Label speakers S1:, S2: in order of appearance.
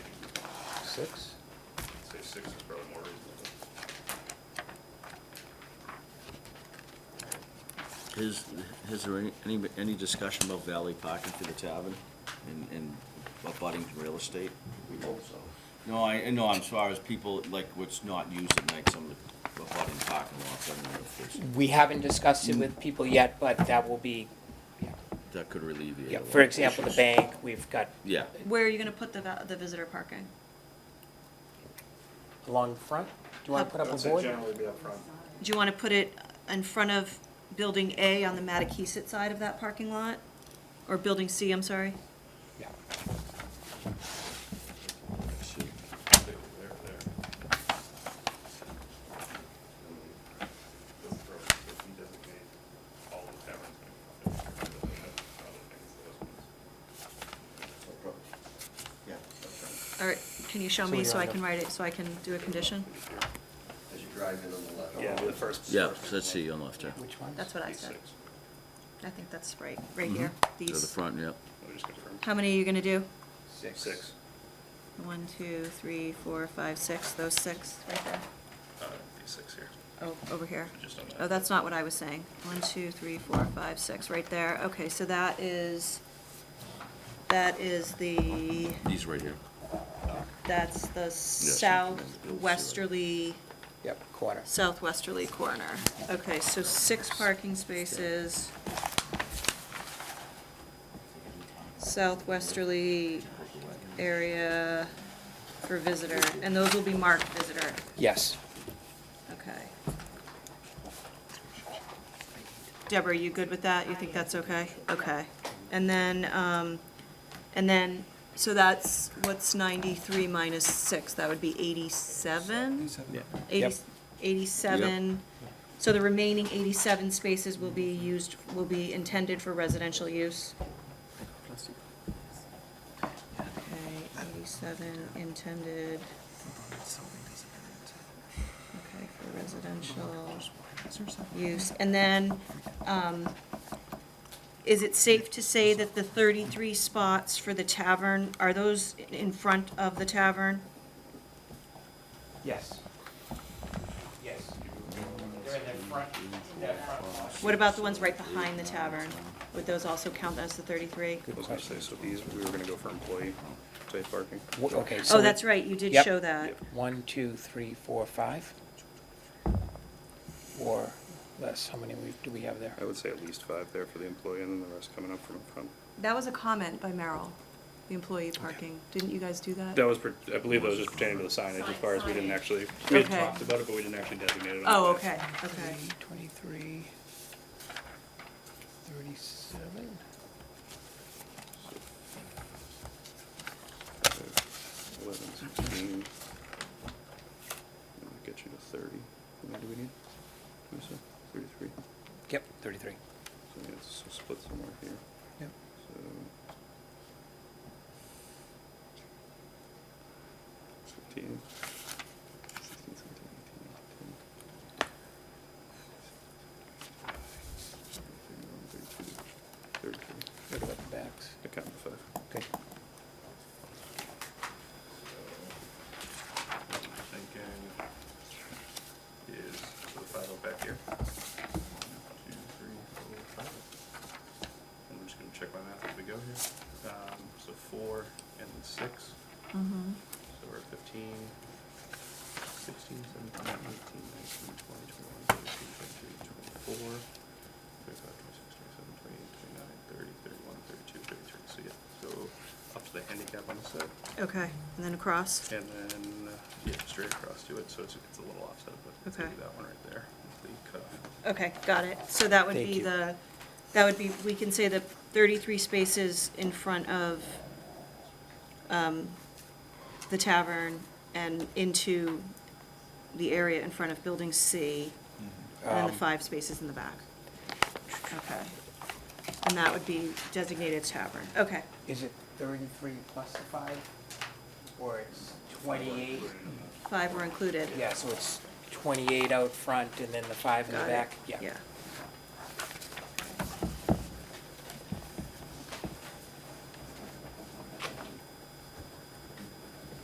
S1: six?
S2: Say six is probably more reasonable.
S3: Is, is there any, any, any discussion about valley parking for the tavern and, and abutting real estate?
S4: We hope so.
S3: No, I, no, I'm as far as people, like, what's not used at night, some of the abutting parking lots, I don't know if there's,
S5: We haven't discussed it with people yet, but that will be, yeah.
S3: that could alleviate a
S5: Yeah,
S3: lot
S5: for
S3: of
S5: example, the
S3: issues.
S5: bank, we've got
S3: Yeah,
S6: Where are you gonna put the, va- the visitor parking?
S5: along the front. Do you want to put up a
S2: That's it,
S5: board?
S2: generally be up front.
S6: Do you wanna put it in front of building A on the Matakeesit side of that parking lot? Or building C, I'm sorry?
S5: Yeah.
S2: There, there. If he designate all the taverns. and
S4: That's our problem. Yeah, that's
S6: All right, can you show
S5: So
S6: me
S5: we
S6: so I
S5: line up.
S6: can write it, so I can do a condition?
S4: right. As you drive in on the left.
S2: Yeah, the first.
S3: yeah, so let's see, on left there.
S5: Which one?
S6: That's what I
S2: These
S6: said.
S2: six.
S6: I think that's right, right
S3: Mhm.
S6: here,
S5: Mm-hmm.
S3: To the
S6: these.
S3: front, yeah.
S2: Let me just confirm.
S6: How many are you gonna do?
S4: Six.
S2: Six.
S6: One, two, three, four, five, six, those six right there.
S2: Uh, these six here.
S6: Oh, over here.
S2: Just on that.
S6: Oh, that's not what I was saying. One, two, three, four, five, six, right there. Okay, so that is, that is the,
S3: These right here.
S6: that's the southwesterly,
S5: Yep, corner.
S6: southwesterly corner. Okay, so six parking spaces. Southwesterly area for visitor, and those will be marked visitor.
S5: Yes.
S6: Okay. Deborah, you good with that? You think that's okay? Okay. And then, um, and then, so that's, what's ninety-three minus six? That would be eighty-seven?
S5: Yep.
S6: Eighty, eighty-seven. So the remaining eighty-seven spaces will be used, will be intended for residential use? Okay, eighty-seven intended, okay, for residential use. And then, um, is it safe to say that the thirty-three spots for the tavern, are those in front of the tavern?
S1: Yes.
S7: Yes. They're in the front, that front lot.
S6: What about the ones right behind the tavern? Would those also count as the thirty-three?
S2: I was gonna say, so these, we were gonna go for employee safe parking.
S5: W- Okay, so.
S6: Oh, that's right, you did
S5: Yep.
S6: show that.
S2: Yep.
S5: One, two, three, four, five? Or less, how many we- do we have there?
S2: I would say at least five there for the employee and then the rest coming up from front.
S6: That was a comment by Merrill, the employee parking. Didn't you guys do that?
S2: That was, per- I believe that was just pertaining to the signage as far as we didn't actually, we had
S6: Okay.
S2: talked about it, but we didn't actually designate it. on
S6: Oh,
S2: the plan.
S6: okay, okay.
S5: Three, Twenty-three, thirty-seven?
S2: Eleven, sixteen. That'll Get you to thirty. How many do we need? What is it? Thirty-three.
S5: Yep, thirty-three.
S2: So yeah, it's split somewhere here.
S5: Yep.
S2: So. Fifteen. Sixteen, seventeen, eighteen, nineteen. Thirty-two, thirty-three.
S5: Look at the backs.
S2: I counted five.
S5: Okay.
S2: Thinking is so the five up back here. One, two, three, four, five. And I'm just gonna check my math as we go here. Um, so four and then six,
S6: Mhm.
S2: so we're at fifteen, sixteen, seventeen, eighteen, nineteen, twenty, twenty-one, twenty-two, twenty-three, twenty-four, twenty-five, twenty-six, twenty-seven, twenty-eight, twenty-nine, thirty, thirty-one, thirty-two, thirty-three. So yeah, so up to the handicap on the set.
S6: Okay, and then across?
S2: And then, uh, yeah, straight across to it, so it's, it's a little offset, but it's gonna be
S6: Okay.
S2: that one right there, the cutoff.
S6: Okay, got it. So that would
S5: Thank
S6: be
S5: you.
S6: the, that would be, we can say the thirty-three spaces in front of, um, the tavern and into the area in front of building C, and then the
S5: Um,
S6: five spaces in the back. Okay. And that would be designated tavern. Okay.
S7: Is it thirty-three plus the five, or it's twenty-eight?
S6: Five were included.
S5: Yeah, so it's twenty-eight out front and then the five in the
S6: Got it.
S5: back, yeah.
S6: Yeah,